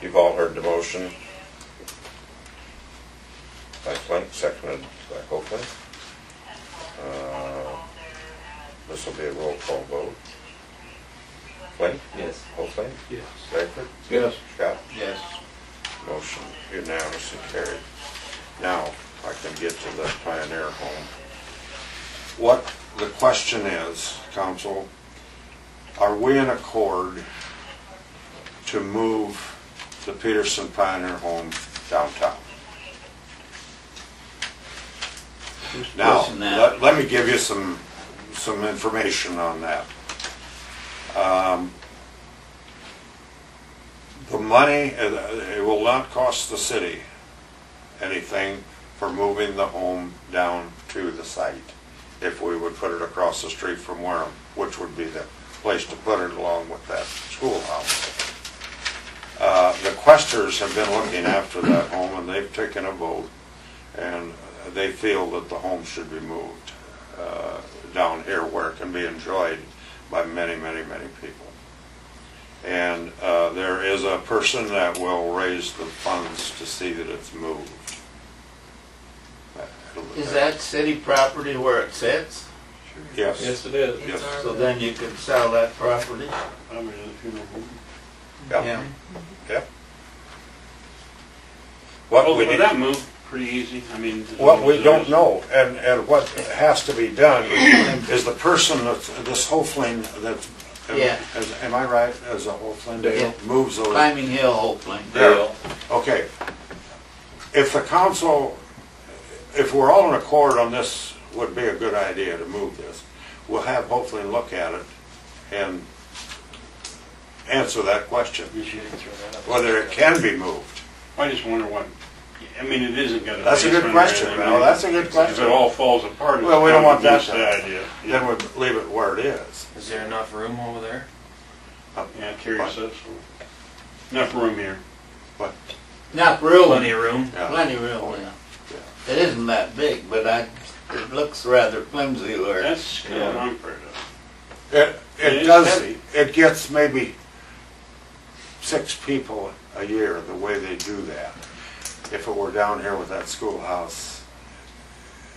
You've all heard the motion. By Flink, seconded by Copeland. Uh, This will be a roll call vote. Flink, Yes. Copeland, Yes. Stegler, Yes. Scott, Yes. motion unanimously carried. Now, I can get to the Pioneer Home. What the question is, council, are we in accord to move the Peterson Pioneer Home downtown? Now, pushing that? let, let me give you some, some information on that. Um, The money, uh, it will not cost the city anything for moving the home down to the site if we would put it across the street from Wareham, which would be the place to put it along with that schoolhouse. Uh, The Questers have been looking after that home and they've taken a vote and they feel that the home should be moved uh, down here where it can be enjoyed by many, many, many people. And uh, there is a person that will raise the funds to see that it's moved. Is that city property where it sits? Yes, Yes, it is. yes. So then you could sell that property? I mean, if you know. Yeah. What we Well, need, that moved pretty easy, I mean. what we don't know, and, and what has to be done is the person that's, this Hofling that, Yeah. is- am I right, as a Hofling? Yeah. Moves those, Climbing Hill, Hopeland. Yeah. okay. If the council, if we're all in accord on this, would be a good idea to move this. We'll have Hofling look at it and answer that question, You should throw that up. whether it can be moved. I just wonder what, I mean, it isn't gonna. That's a good basement or question, anything. Mel, that's a good If it question. all falls apart. it's Well, we don't want kinda that just to The idea. Then we leave it where it is. Is there enough room over there? Yeah, curious, that's, all. enough room here. Not really, Plenty of room. Yeah. plenty real, yeah. It isn't that big, but I, it looks rather flimsy where. it- That's kind of unfair though. It, It it is does, heavy. it gets maybe six people a year, the way they do that. If it were down here with that schoolhouse,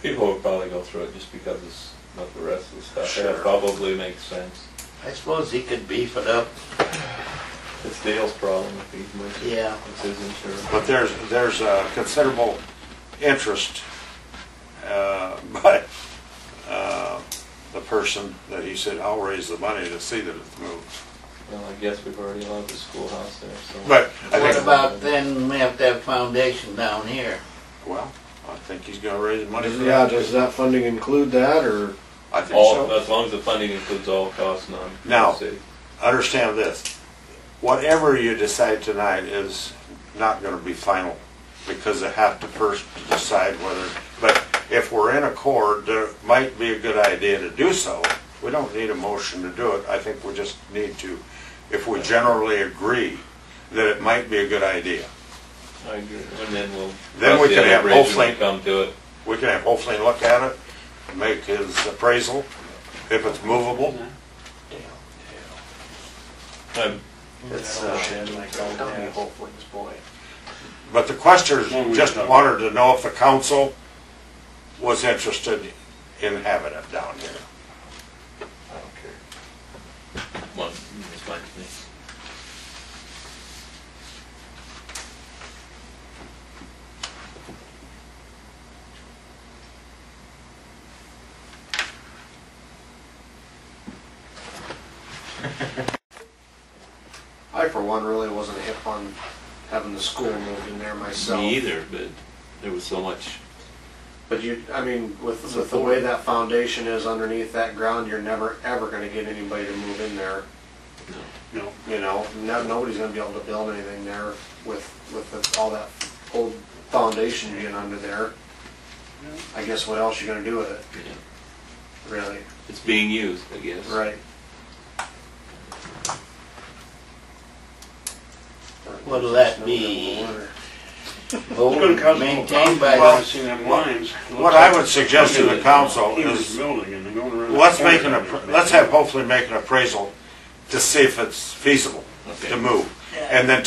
People would probably go through it just because it's not the rest of the stuff. Sure. That probably makes sense. I suppose he could beef it up, It's Dale's problem if he moves it. yeah. It's his insurance. but there's, there's a considerable interest, uh, by, uh, the person that he said, I'll raise the money to see that it's moved. Well, I guess we've already allowed the schoolhouse there, so. But I What think, about then, we have to have foundation down here? well, I think he's gonna raise the money for Yeah, that. does that funding include that, or? I think so. All, as long as the funding includes all costs, none. Now, Let's see. understand this, whatever you decide tonight is not gonna be final, because they have to first decide whether, but if we're in accord, there might be a good idea to do so. We don't need a motion to do it, I think we just need to, if we generally agree that it might be a good idea. I agree. And then we'll. Then we cross the can other have bridge when we hopefully- Come to it. We can have hopefully look at it, make his appraisal, if it's movable. I'm- It's, Little uh, shed like old Dan Hopeland's boy. But the questioners Well, we just don't. wanted to know if the council was interested in having it down here. I don't care. One, it's fine to me. I, for one, really wasn't hip on having the school moved in there myself. Me either, but there was so much. But you, I mean, with, with the way that foundation is underneath that ground, you're never, ever gonna get anybody to move in there. No. You know, no, nobody's gonna be able to build anything there with, with the- all that old foundation being under there. I guess what else you gonna do with it, you know. really? It's being used, I guess. Right. What'll that be? It's gonna cost a little Maintained by Well, I the haven't seen them what- lines. It looks What I like would suggest to the council Huge is, building and they're going around. the let's make an, corner. appra- let's have hopefully make an appraisal to see if it's feasible to Okay. move. And then